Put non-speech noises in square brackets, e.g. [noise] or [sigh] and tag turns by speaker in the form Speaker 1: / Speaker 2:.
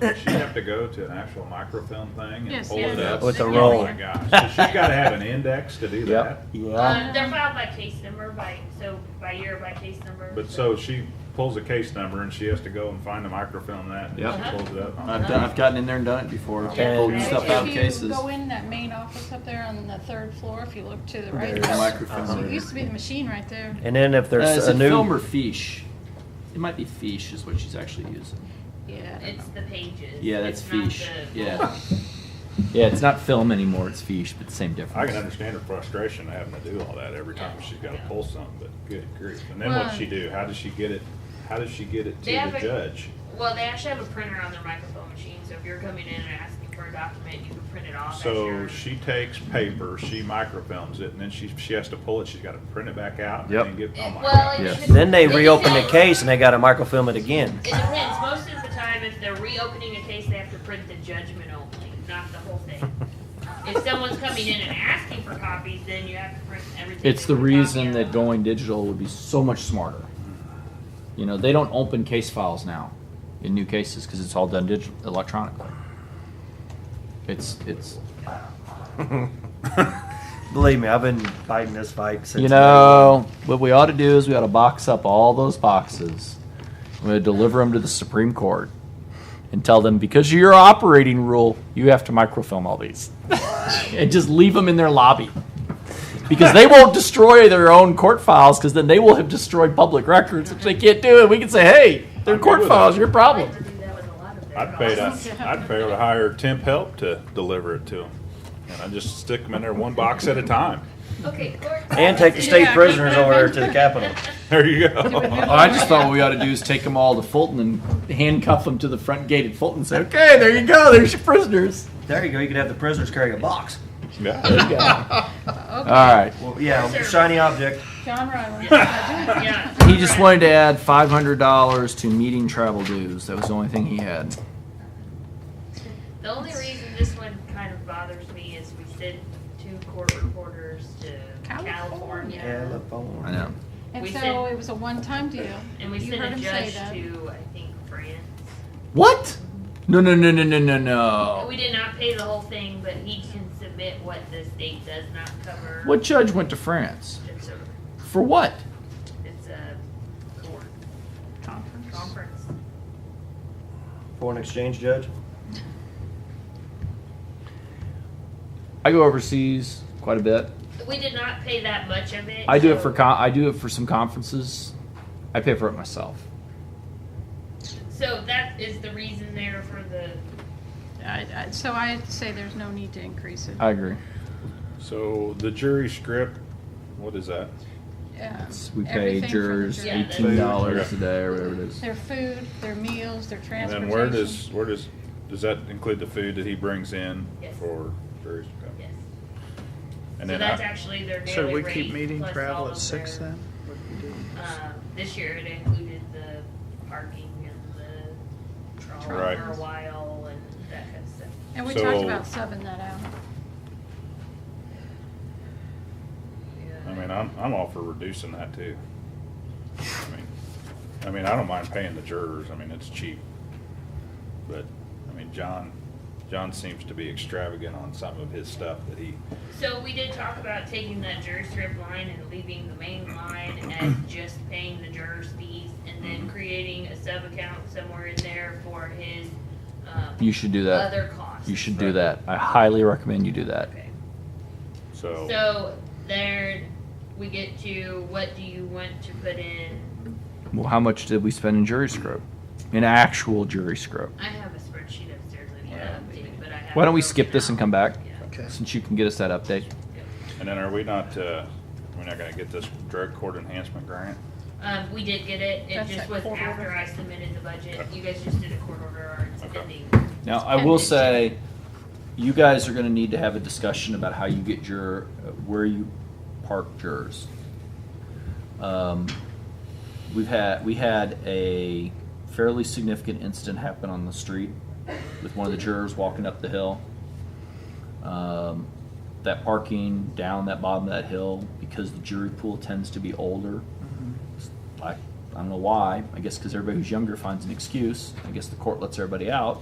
Speaker 1: Does she have to go to an actual microfilm thing and
Speaker 2: Yes,
Speaker 1: pull it
Speaker 2: yes.
Speaker 1: up?
Speaker 3: With a
Speaker 1: Oh
Speaker 3: roll.
Speaker 1: my gosh, does she gotta have an index to do that?
Speaker 3: Yep.
Speaker 4: Uh, they're filed by case number, by, so by year, by case number.
Speaker 1: But so she pulls a case number and she has to go and find the microfilm that, and
Speaker 5: Yep.
Speaker 1: she pulls it up.
Speaker 5: I've, done, I've gotten in there and done it before.
Speaker 3: Yeah.
Speaker 5: Pulled stuff out of
Speaker 2: If you
Speaker 5: cases.
Speaker 2: Go in that main office up there on the third floor, if you look to the right.
Speaker 5: There's a microphone.
Speaker 2: So It used to be the machine right there.
Speaker 3: And then if
Speaker 5: Uh,
Speaker 3: there's
Speaker 5: is
Speaker 3: a
Speaker 5: it film or
Speaker 3: new,
Speaker 5: fiche? It might be fiche is what she's actually using.
Speaker 2: Yeah.
Speaker 4: It's the pages.
Speaker 5: Yeah, that's
Speaker 4: It's not
Speaker 5: fiche.
Speaker 4: the-
Speaker 5: Yeah.
Speaker 6: [laughs] Yeah, it's not film anymore, it's fiche, but same difference.
Speaker 1: I can understand her frustration of having to do all that every time she's gotta pull something, but good grief. And then what's
Speaker 2: Well-
Speaker 1: she do? How does she get it, how does she get it to
Speaker 4: They have
Speaker 1: the
Speaker 4: a-
Speaker 1: judge?
Speaker 4: Well, they actually have a printer on their microphone machine, so if you're coming in and asking for a document, you can print it off.
Speaker 1: So
Speaker 4: as your-
Speaker 1: she takes paper, she microfilms it, and then she, she has to pull it, she's gotta print it back out and
Speaker 6: Yep.
Speaker 1: then get, oh my
Speaker 4: Well,
Speaker 1: gosh.
Speaker 4: it
Speaker 6: Yes.
Speaker 4: depends.
Speaker 3: then they
Speaker 4: It
Speaker 3: reopen the
Speaker 4: depends.
Speaker 3: case and they gotta microfilm it again.
Speaker 4: It depends. Most of the time, if they're reopening a case, they have to print the judgment only, not the whole thing. if someone's coming in and asking for copies, then you have to print everything.
Speaker 6: It's the reason that going digital would be so much smarter. You know, they don't open case files now in new cases because it's all done digital electronically. It's it's
Speaker 3: Believe me, I've been fighting this fight since.
Speaker 6: you know what we ought to do is we ought to box up all those boxes. We're going to deliver them to the Supreme Court and tell them because of your operating rule, you have to microfilm all these [laughs] and just leave them in their lobby because they won't destroy their own court files because then they will have destroyed public records which they can't do. And we can say, hey, they're
Speaker 1: I'm good
Speaker 6: court
Speaker 1: with that.
Speaker 6: files, your
Speaker 4: I
Speaker 6: problem.
Speaker 4: have to do that with a lot of their
Speaker 1: I'd pay
Speaker 4: dogs.
Speaker 1: to, I'd pay to hire temp help to deliver it to them. And I just stick them in there one box at a time. [laughs]
Speaker 4: Okay, court.
Speaker 3: And take the state prisoners over there to the Capitol.
Speaker 1: There you go.
Speaker 6: Oh,
Speaker 4: [laughs]
Speaker 6: I just thought what we ought to do is take them all to Fulton and handcuff them to the front gate at Fulton and say, okay, there you go, there's your prisoners.
Speaker 3: There you go. You could have the prisoners carry a box.
Speaker 1: Yeah.
Speaker 6: All right.
Speaker 3: Well, yeah, shiny object.
Speaker 2: Oh, John Ryland.
Speaker 4: Yeah.
Speaker 6: He just wanted to add five hundred dollars to meeting travel dues. That was the only thing he had.
Speaker 4: The only reason this one kind of bothers me is we sent two court reporters to
Speaker 2: California.
Speaker 4: California.
Speaker 6: I know.
Speaker 2: And
Speaker 4: We
Speaker 2: so
Speaker 4: said-
Speaker 2: it was a one-time deal.
Speaker 4: And we
Speaker 2: You
Speaker 4: sent
Speaker 2: heard
Speaker 4: a
Speaker 2: him say
Speaker 4: judge
Speaker 2: that.
Speaker 4: to, I think, France.
Speaker 6: What? No, no, no, no, no, no, no.
Speaker 4: We did not pay the whole thing, but he can submit what the state does not cover.
Speaker 6: What judge went to France?
Speaker 4: It's a,
Speaker 6: For what?
Speaker 4: it's a court conference.
Speaker 3: Foreign exchange judge.
Speaker 6: I go overseas quite a bit.
Speaker 4: We did not pay that much of it.
Speaker 6: I do it
Speaker 4: so-
Speaker 6: for con- I do it for some conferences. I pay for it myself.
Speaker 4: So that is the reason there for the.
Speaker 2: I- I- So I say there's no need to increase it. Um,
Speaker 6: I agree.
Speaker 1: So the jury script, what is that?
Speaker 2: Um,
Speaker 6: We pay
Speaker 2: everything from the
Speaker 6: jurors
Speaker 2: jury.
Speaker 4: Yeah.
Speaker 6: eighteen dollars a day or whatever it is.
Speaker 2: Their food, their meals, their
Speaker 1: And
Speaker 2: transportation.
Speaker 1: then where does, where does, does that include the food that he brings in
Speaker 4: Yes.
Speaker 1: for jury script?
Speaker 4: Yes.
Speaker 1: And
Speaker 4: so
Speaker 1: then
Speaker 4: that's
Speaker 1: I-
Speaker 4: actually their daily
Speaker 7: Should we
Speaker 4: rate
Speaker 7: keep meeting
Speaker 4: plus all
Speaker 7: travel at
Speaker 4: of
Speaker 7: six
Speaker 4: their-
Speaker 7: then? What do we do?
Speaker 4: Um, this year it included the parking and the trolley
Speaker 1: Right.
Speaker 4: for a while and that kind of stuff.
Speaker 2: And we talked
Speaker 1: So-
Speaker 2: about subbing that out.
Speaker 1: I mean, I'm, I'm all for reducing that too. I mean, I mean, I don't mind paying the jurors, I mean, it's cheap. But, I mean, John, John seems to be extravagant on some of his stuff that he,
Speaker 4: So we did talk about taking that juror strip line and leaving the main line
Speaker 1: [clears throat]
Speaker 4: and just paying the jurors fees and
Speaker 1: Mm-hmm.
Speaker 4: then creating a sub account somewhere in there for his, um,
Speaker 6: You should do that.
Speaker 4: other costs.
Speaker 6: You should do that. I highly recommend you do that.
Speaker 4: Okay.
Speaker 1: so.
Speaker 4: So there, we get to, what do you want to put in?
Speaker 6: Well, how much did we spend in jury scope? In actual jury scope.
Speaker 4: I have a spreadsheet upstairs that I
Speaker 1: Yeah.
Speaker 4: updated, but I have.
Speaker 6: Why don't we
Speaker 4: it
Speaker 6: skip
Speaker 4: broken
Speaker 6: this and
Speaker 4: out.
Speaker 6: come back?
Speaker 4: Yeah.
Speaker 7: Okay.
Speaker 6: Since you can get us that update.
Speaker 1: And then are we not, uh, we're not gonna get this drug court enhancement grant?
Speaker 4: Um, we did get it, it
Speaker 2: That's
Speaker 4: just
Speaker 2: that
Speaker 4: was
Speaker 2: court order.
Speaker 4: after I submitted the budget, you guys just did a court order or it's
Speaker 1: Okay.
Speaker 4: pending.
Speaker 6: Now, I will say, you guys are gonna need to have a discussion about how you get your, where you park jurors. Um, We've had, we had a fairly significant incident happen on the street with one of the jurors walking up the hill. Um, That parking down that bottom of that hill, because the jury pool tends to be older, like I don't know why. I guess because everybody who's younger finds an excuse. I guess the court lets everybody out.